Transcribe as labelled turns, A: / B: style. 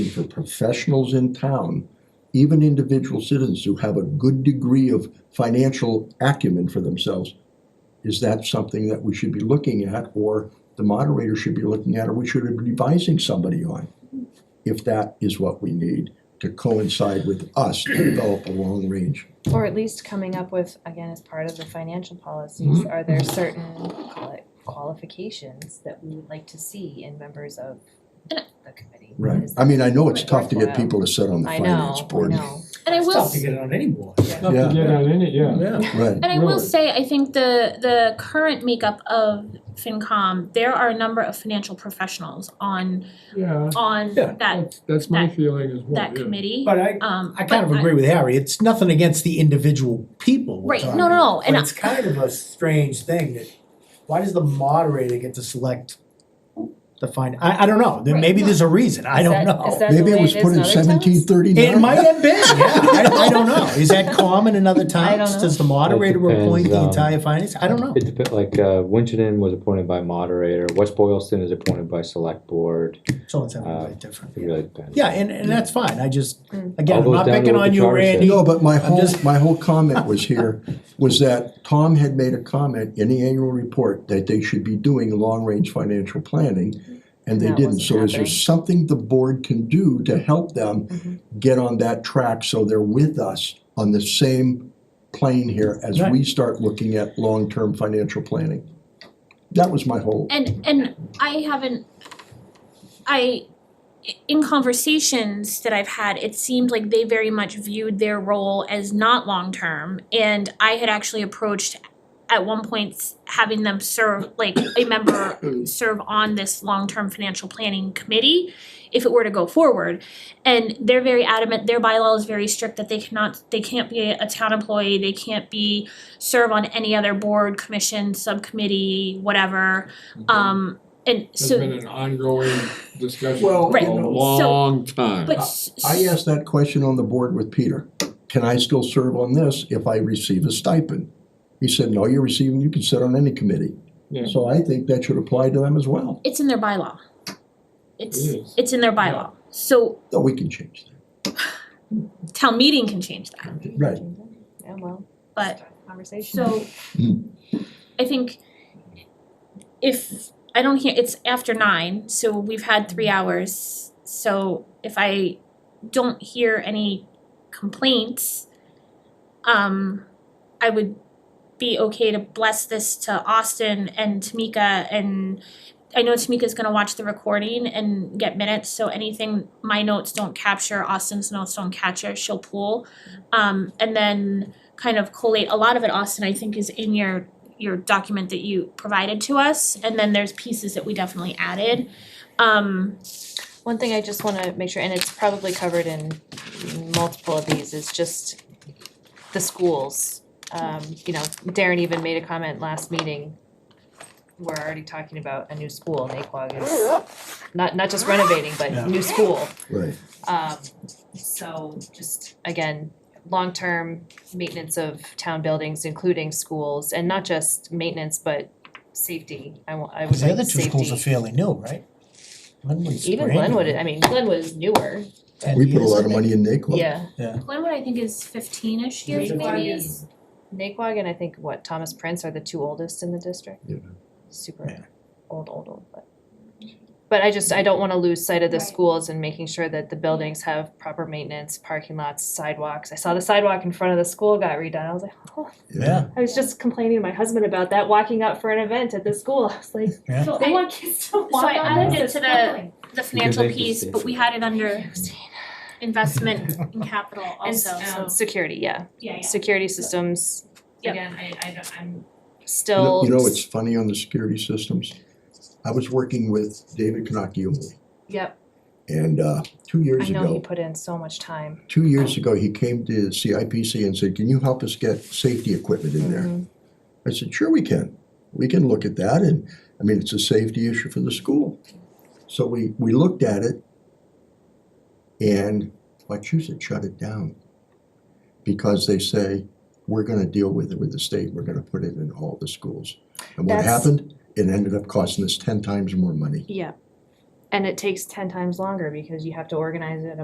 A: for professionals in town, even individual citizens who have a good degree of financial acumen for themselves, is that something that we should be looking at, or the moderator should be looking at, or we should be advising somebody on? If that is what we need to coincide with us to develop a long range.
B: Or at least coming up with, again, as part of the financial policies,
A: Mm-hmm.
B: are there certain call it qualifications that we would like to see in members of the committee?
A: Right,
B: Is-
A: I mean, I know it's tough to get
B: Worthwhile.
A: people to sit on the
B: I
A: finance
B: know, I
A: board.
B: know.
C: And I
D: It's
C: will,
D: tough to get it on any board.
A: Tough to Yeah.
E: get on any, yeah.
A: Right,
C: and I will
E: Really.
C: say, I think the the current makeup of FinCom, there are a number of financial professionals on
E: Yeah,
D: Yeah.
C: on
D: Oh,
C: that
E: that's, that's my
C: that-
E: feeling as well,
C: that
E: yeah.
C: committee.
D: But I,
C: Um,
D: I kind
C: but
D: of agree with Harry, it's nothing against the individual people we're
C: Right, no,
D: talking
C: no, no,
D: about,
C: and
D: but
C: I-
D: it's kind of a strange thing that, why does the moderator get to select the fin, I, I don't know, then
B: Right,
D: maybe
B: no.
D: there's a reason, I don't know.
B: Is that, is that the
A: maybe
B: way
A: it was
B: is
A: put in
B: other towns?
A: seventeen thirty-nine.
D: It might have been, yeah, I, I don't know, is that common in other
B: I don't
D: times,
B: know.
D: does the moderator
F: It
D: appoint the
F: depends, um,
D: entire finance, I don't know.
F: It depends, like, uh, Winchendon was appointed by moderator, West Boylston is appointed by select board,
D: So it's something
F: Uh,
D: really different,
F: it
D: yeah,
F: really depends.
D: yeah, and, and that's fine, I just,
B: Mm.
D: again,
F: All
D: I'm
F: goes
D: not
F: down to
D: picking
F: what
D: on
F: the
D: you,
F: charter says.
D: Randy,
F: Yeah.
A: No, but my whole,
D: just-
A: my whole comment was here, was that Tom had made a comment in the annual report that they should be doing long-range financial planning, and they
B: That
A: didn't,
B: wasn't
A: so is there
B: happening. Mm-hmm.
A: something the board can do to help them get on that track so they're with us on the same plane here as
D: Right.
A: we start looking at long-term financial planning? That was my whole,
C: And and I haven't, I, in conversations that I've had, it seemed like they very much viewed their role as not long-term. And I had actually approached at one point s- having them serve, like a member serve on this long-term financial planning committee if it were to go forward. And they're very adamant, their bylaw is very strict that they cannot, they can't be a town employee, they can't be, serve on any other board, commission, subcommittee, whatever. Um, and
E: It's been
C: so,
E: an ongoing discussion
A: Well,
E: for
C: Right,
E: a
C: so-
E: long time.
C: but s-
A: I asked that question on the board with Peter, can I still serve on this if I receive a stipend? He said, no, you're receiving, you can sit on any committee.
E: Yeah.
A: So I think that should apply to them as well,
C: It's in their bylaw. It's
E: It is.
C: it's in their bylaw. So
A: though we can change
C: town meeting can change that,
A: that, right?
B: Yeah, well,
C: but
B: conversation.
C: so I think if I don't hear it's after nine, so we've had three hours. So if I don't hear any complaints, um I would be okay to bless this to Austin and Tamika and I know Tamika's gonna watch the recording and get minutes, so anything my notes don't capture, Austin's notes don't capture, she'll pull. Um and then kind of collate, a lot of it, Austin, I think is in your your document that you provided to us, and then there's pieces that we definitely added. Um
B: One thing I just wanna make sure, and it's probably covered in multiple of these, is just the schools. Um, you know, Darren even made a comment last meeting. We're already talking about a new school, Naquag is not not just renovating,
D: Yeah.
B: but new school.
A: Right.
B: Um, so just again, long-term maintenance of town buildings, including schools, and not just maintenance, but safety. I wa- I would
D: Cause the
B: like
D: other two
B: safety.
D: schools are fairly new, right? Glenwood's
B: Even
D: brand new.
B: Glenwood, I mean, Glenwood is newer,
D: Ten
A: We put a
D: years,
A: lot
D: I
A: of
D: think.
A: money in NACLA.
B: yeah.
C: Glenwood, I think, is fifteen-ish
B: years,
C: years
B: Fifteen. maybe.
C: maybe.
B: Yes. Naquag and I think what Thomas Prince are the two oldest in the district.
A: Yeah.
D: Yeah.
B: Super old, old, old, but. But I just, I don't wanna lose sight of the
C: Right.
B: schools and making sure that the buildings have proper maintenance, parking lots, sidewalks. I saw the sidewalk in front of the school got redone. I was like, oh,
D: Yeah,
B: I was just complaining to my husband about that, walking up for an event at the school. I was like,
D: yeah.
B: they want kids to walk
C: So I
B: on
C: added it
B: this.
C: to
B: It's
C: the
B: fine."
C: the financial
F: make this
C: piece, but we
F: different.
C: had it under investment and capital
B: And
C: also, so,
B: um, security, yeah.
C: yeah, yeah.
B: Security systems,
C: Yep.
B: again, I, I don't, I'm
A: You know-
B: still.
A: You know, it's funny on the security systems. I was working with David Kanakiumi
B: Yep,
A: and uh, two years
B: I
A: ago.
B: know he put in so much time.
A: two years ago, he came to CIPC and said, can you help us get safety equipment in there?
B: Mhm.
A: I said, sure we can. We can look at that and, I mean, it's a safety issue for the school. So we, we looked at it and Wachusett shut it down because they say, we're gonna deal with it with the state, we're gonna put it in all the schools. And what
B: That's-
A: happened? It ended up costing us ten times more money.
B: Yeah. And it takes ten times longer because you have to organize it